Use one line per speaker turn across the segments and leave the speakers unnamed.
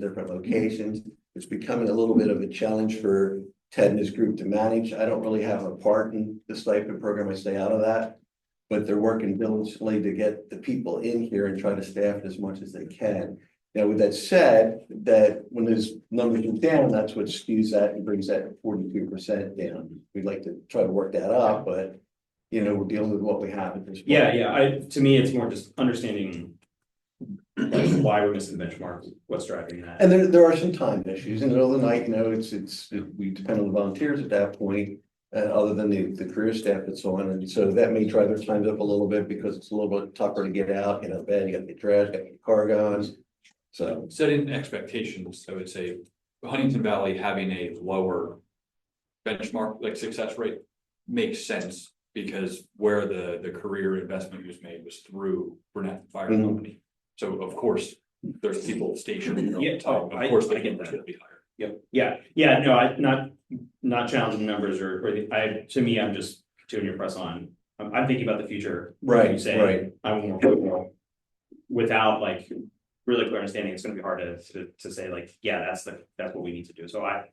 different locations. It's becoming a little bit of a challenge for Ted and his group to manage. I don't really have a part in the stipend program. I stay out of that. But they're working diligently to get the people in here and try to staff it as much as they can. Now, with that said, that when those numbers are down, that's what skews that and brings that forty-two percent down. We'd like to try to work that up, but you know, we're dealing with what we have at this. point.
Yeah, yeah, I, to me, it's more just understanding. like, Why we're missing the benchmark, what's driving that,
And there, there are some time issues in the middle of the night, you know, it's, it's, we depend on the volunteers at that point. Uh, other than the, the career staff that's on, and so that may drive their times up a little bit because it's a little bit tougher to get out, you know, bed, you gotta get dressed, gotta get car gone. So,
setting expectations, I would say Huntington Valley having a lower benchmark, like success rate makes sense because where the, the career investment was made was through Burnett Fire
Mhm.
Company. So of course, there's people stationed. there all the
Yeah,
time.
oh, I-
Of course,
I
they
get
can
that.
be higher.
yeah, yeah, no, I, not, not challenging numbers or, or the- I, to me, I'm just continuing to press on. I'm, I'm thinking about the future, Like you
right,
say.
right,
I'm more hopeful. Without like really clear understanding, it's gonna be hard to, to, to say like, yeah, that's the, that's what we need to do, so I.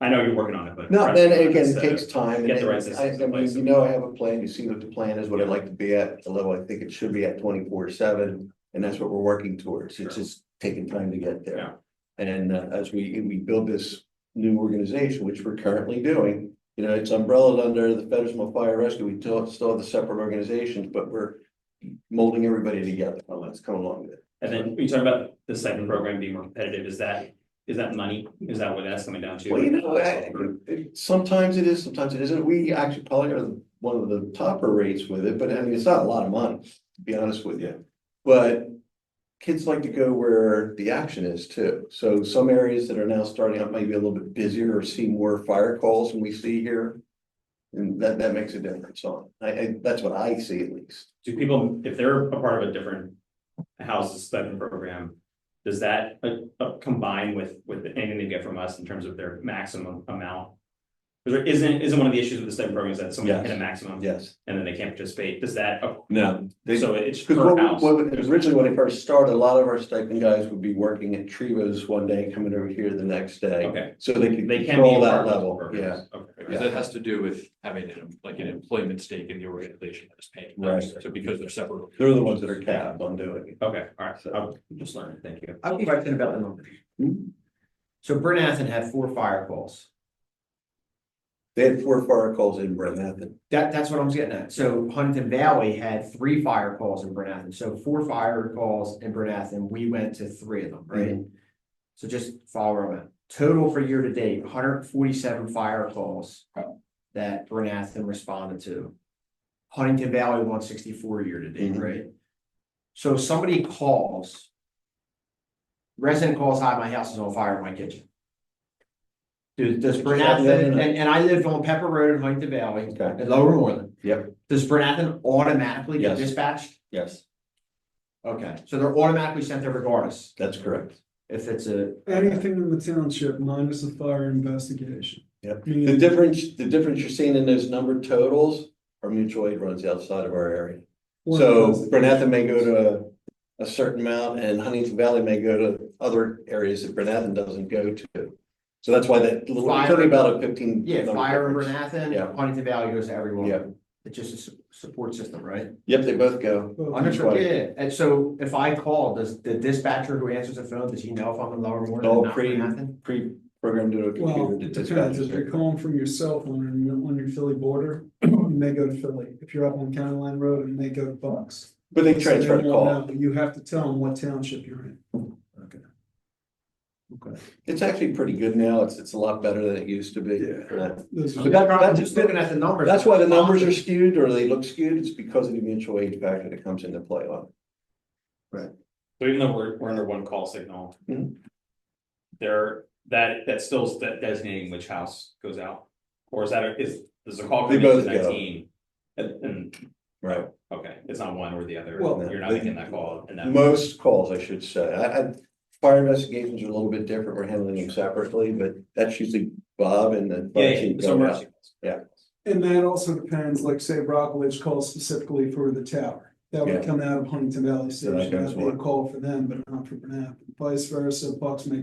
I know you're working on it, but.
no, then again,
It's,
it
uh,
takes time.
get the right
and I, I
systems in
mean,
place.
you know, I have a plan, you see what the plan is, what I'd like to be at, the level I think it should be at twenty-four seven. And that's what we're working towards, it's
Sure.
just taking time to get there.
Yeah.
And uh, as we, we build this new organization, which we're currently doing, you know, it's umbrellaed under the Federal Fire Rescue. We still, still have the separate organizations, but we're molding everybody together. Well, Let's come along with it.
And then you talk about the second program being more competitive, is that, is that money, is that what that's coming down to?
Well, you know, I- it- sometimes it is, sometimes it isn't. We actually probably are one of the topper rates with it, but I mean, it's not a lot of money, to be honest with you. But kids like to go where the action is too. So some areas that are now starting out maybe a little bit busier or see more fire calls than we see here. And that, that makes a difference on, I, I, that's what I see at least.
Do people, if they're a part of a different house's stipend program, does that uh, uh, combine with, with anything they get from us in terms of their maximum amount? Because isn't, isn't one of the issues with the stipend program is that someone
Yes.
hit a maximum
Yes.
and then they can't participate, does that, oh,
No.
so it's
Because
per
what,
house?
what, originally when it first started, a lot of our stipend guys would be working at Trivas one day, coming over here the next day.
Okay,
So they could
they can be.
control
a
that
part of those
level, yeah.
programs. Okay.
Because that has to do with having an, like an employment stake in the organization that is paying. them.
Right.
So because they're separate.
They're the ones that are capped on doing
Okay, all right,
So-
I'm just learning, thank you.
I have a question about the numbers.
it.
So Bernathen had four fire calls.
They had four fire calls in Brenathan.
That, that's what I'm getting at. So Huntington Valley had three fire calls in Bernathen. So four fire calls in Bernathen. We went to three of them, right? So just follow them up. Total for year to date, hundred forty-seven fire calls that Bernathen responded to. Huntington Valley one sixty-four year to date,
Mhm.
right? So if somebody calls. Resident calls, hi, my house is on fire in my kitchen. Does, does Bernathen, and, and I lived on Pepper Road in Huntington Valley,
Okay.
in Lower Moreland.
Yep.
Does Bernathen automatically get
Yes.
dispatched?
Yes,
Okay, so they're automatically sent there regardless,
that's correct.
if it's a.
Anything in the township minus a fire investigation.
Yep.
I
The
mean,
difference, the difference you're seeing in those number totals are mutual aid runs outside of our area.
one
So
investigation.
Brenathan may go to a certain amount and Huntington Valley may go to other areas that Brenathan doesn't go to. So that's why that little, it's only about a fifteen.
Yeah,
number
fire in
difference. Yeah.
Bernathen, Huntington Valley goes to everyone.
Yeah.
It's just a su- support system, right?
Yep, they both go.
Well,
Understood.
Understood, yeah, and so if I call, does the dispatcher who answers the phone, does he know if I'm in Lower Moreland?
All
or not
pre-
Bernathen?
Pre-programmed into a
Well,
computer to
it
dispatch.
depends, if
it.
you're calling from your cell phone and on your Philly border, you may go to Philly, if you're up on County Line Road, it may go to Bucks.
But they
So
transfer
they
the
won't
call.
know, but You have to tell them what township you're in.
It's actually pretty good now. It's, it's a lot better than it used to be.
Yeah. Those
But
are-
that-
I'm
that's-
just looking at the numbers.
That's why the numbers are skewed or they look skewed. It's because of the mutual aid factor that comes into play on.
So even though we're, we're under one call signal.
Mhm.
There, that, that still is that designating which house goes out, or is that, a- is, does the call
They
come in
both go.
nineteen? And, and,
Right.
okay, it's not one or the other,
Well,
you're not
they-
making that call and that.
Most calls, I should say. I, I, fire investigations are a little bit different. We're handling them separately, but that's usually Bob and the
Yeah,
fire
yeah,
chief
so
going out.
mercy.
Yeah.
And that also depends, like say Rockledge calls specifically for the tower. That would
Yeah.
come out of Huntington Valley
So that
Station, that'd
goes
be a
what?
call for them, but not for Bernat, vice versa, Bucks may